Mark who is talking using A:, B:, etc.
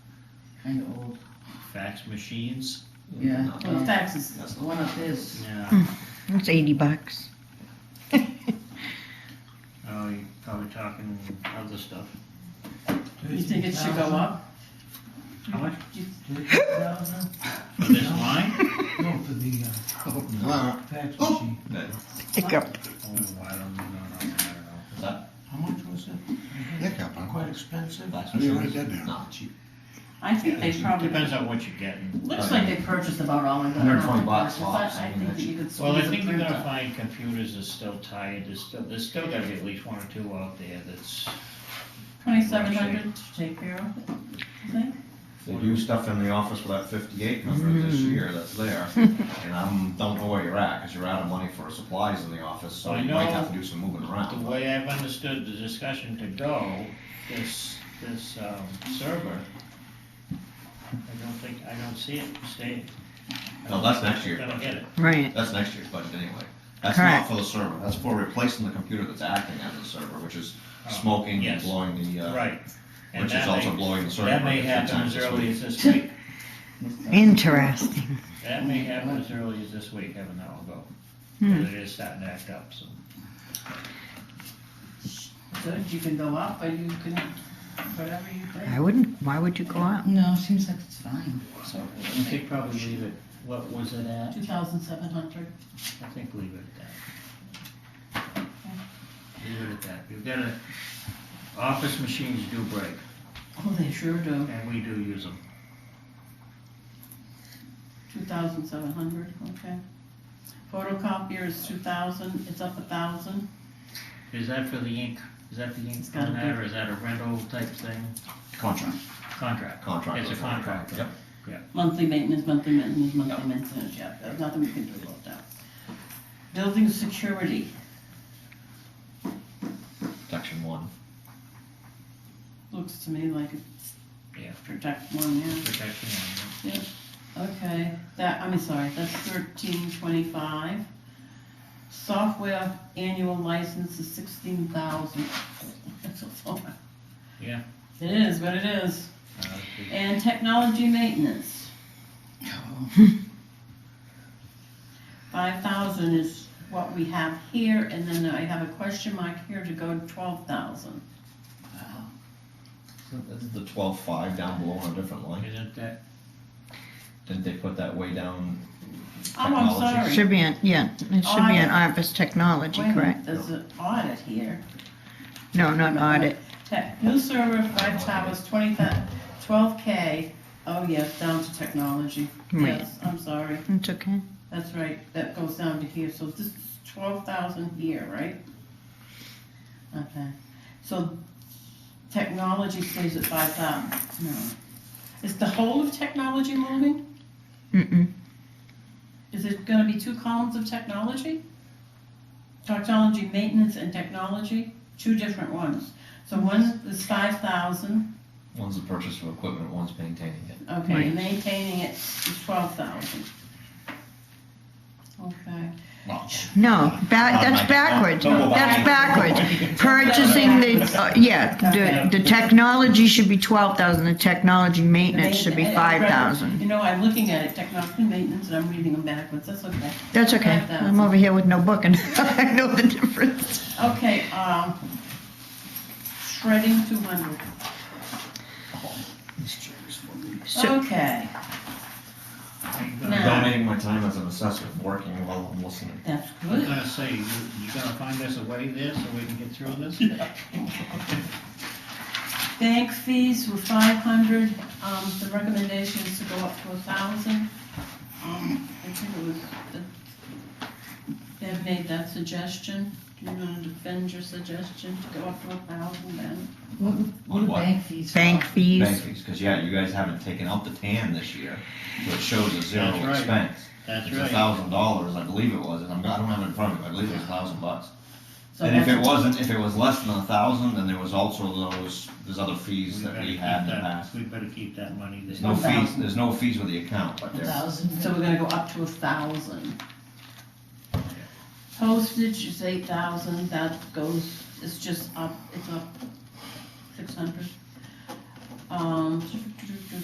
A: kind of old.
B: fax machines.
A: Yeah, well, the fax is that's the one up is.
B: Yeah,
C: It's 80 bucks.
B: oh, you're probably talking other stuff.
A: You think it should go up?
B: How much
D: $13,000?
B: for this line?
D: No, for the, uh, fax
E: Oh.
D: machine.
C: Pick up.
B: Oh, I don't know, I don't know.
E: How much was it? Hiccup, huh?
D: Quite expensive.
E: Last year. write that down. Not cheap.
A: I think they probably,
B: Depends on what you're getting.
A: looks like they purchased about all of them.
E: 120 bucks
A: But
E: lots,
A: I
E: I mean,
A: think that
E: that's-
A: you could
B: Well, I
A: squeeze a
B: think you're gonna
A: printer.
B: find computers are still tied, there's still, there's still gotta be at least one or two out there that's,
A: Twenty-seven hundred to take care of it, you think?
F: They do stuff in the office with that fifty-eight number this year that's there, and I'm, don't know where you're at, cause you're out of money for supplies in the office, so
B: I
F: you might
B: know
F: have to do some moving
B: the
F: around.
B: way I've understood the discussion to go, this, this, um, server, I don't think, I don't see it staying.
F: No, that's next year.
B: Gonna get it.
C: Right.
F: That's next year's budget anyway. That's not
C: Correct.
F: for the server, that's for replacing the computer that's acting as the server, which is smoking and
B: yes.
F: blowing the, uh,
B: Right. And
F: which
B: that
F: is also
B: may-
F: blowing the server.
B: That
F: a
B: may
F: few
B: happen as
F: times this
B: early
F: week.
B: as this week.
C: Interesting.
B: That may happen as early as this week, heaven knows, though.
C: Hmm.
B: But it is starting to act up, so.
A: Good, you can go up, or you can, whatever you
C: I
A: think.
C: wouldn't, why would you go out?
E: No, seems like it's fine.
B: So, I think probably leave it, what was it at?
A: Two thousand seven hundred.
B: I think leave it at that. Leave it at that. We've got a, office machines do break,
A: Oh, they sure do.
B: and we do use them.
A: Two thousand seven hundred, okay. Photocopier is two thousand, it's up a thousand.
B: Is that for the ink? Is that the ink
A: It's gotta
B: on that,
A: be.
B: or is that a rental type thing?
F: Contract,
B: Contract.
F: contract.
B: It's a contract.
F: Yep.
A: Monthly maintenance, monthly maintenance, monthly maintenance, yeah, there's nothing we can do about that. Building security,
F: Section one.
A: looks to me like it's
B: Yeah.
A: protect one, yeah,
B: Protection.
A: okay, that, I'm sorry, that's thirteen twenty-five. Software annual license is sixteen thousand. That's a lot.
B: Yeah.
A: It is what it is,
B: uh, the-
A: and technology maintenance. Five thousand is what we have here, and then I have a question mark here to go to twelve thousand.
F: This is the twelve-five down below on a different line.
B: Isn't that,
F: Didn't they put that way down?
A: Oh, I'm
F: Technology.
A: sorry.
C: Should be an, yeah, it should be an office technology,
A: Wait a minute,
C: correct?
A: There's an audit here.
C: No, not audit.
A: Tech, new server, five towers, twenty thousand, twelve K. Oh, yes, down to technology.
C: Right.
A: Yes, I'm sorry.
C: It's okay.
A: That's right, that goes down to here, so this is twelve thousand here, right? Okay, so technology stays at five thousand, no. Is the whole of technology moving?
C: Mm-mm.
A: Is it gonna be two columns of technology? Technology maintenance and technology, two different ones. So one is five thousand,
F: One's the purchase of equipment, one's maintaining it.
A: okay,
C: Right.
A: maintaining it is twelve thousand. Okay.
F: Well,
C: No, ba- that's
F: Automatic.
C: backwards.
F: Don't go
C: That's
F: back.
C: backwards. Purchasing the, uh, yeah, the, the technology should be twelve thousand, the technology maintenance should be
A: Main- uh,
C: five thousand.
A: You know, I'm looking at it, technology maintenance, and I'm reading them backwards, that's okay.
C: That's okay. I'm
A: 5,000.
C: over here with no book and I know the difference.
A: Okay, um, shredding two hundred,
C: So,
A: okay,
B: I'm
A: No.
B: gonna-
F: Donating my time as an assessor, working while I'm listening.
A: that's
B: I was
A: good.
B: gonna say, you, you gonna find us a way there so we can get through this?
A: Bank fees were five hundred, um, the recommendation is to go up to a thousand. Um, I think it was, the- they've made that suggestion, do you wanna defend your suggestion to go up to a thousand then?
E: What,
F: what are What?
E: bank fees?
C: bank fees,
F: Banking, because yeah, you guys haven't taken out the tan this year, so it shows a zero
B: That's right.
F: expense.
B: That's
F: It's a
B: right.
F: thousand dollars, I believe it was, and I'm, I don't have it in front of me, but I believe it was a thousand bucks.
A: So
F: And if
A: that's-
F: it wasn't, if it was less than a thousand, then there was also those, there's other fees
B: We
F: that
B: better
F: we
B: keep
F: had in the
B: that-
F: past.
B: We better keep that money there.
F: There's no
A: Okay.
F: fees, there's no fees with the account, but there's,
E: Thousand.
A: So we're gonna go up to a thousand. Postage is eight thousand, that goes, it's just up, it's up six hundred. Um,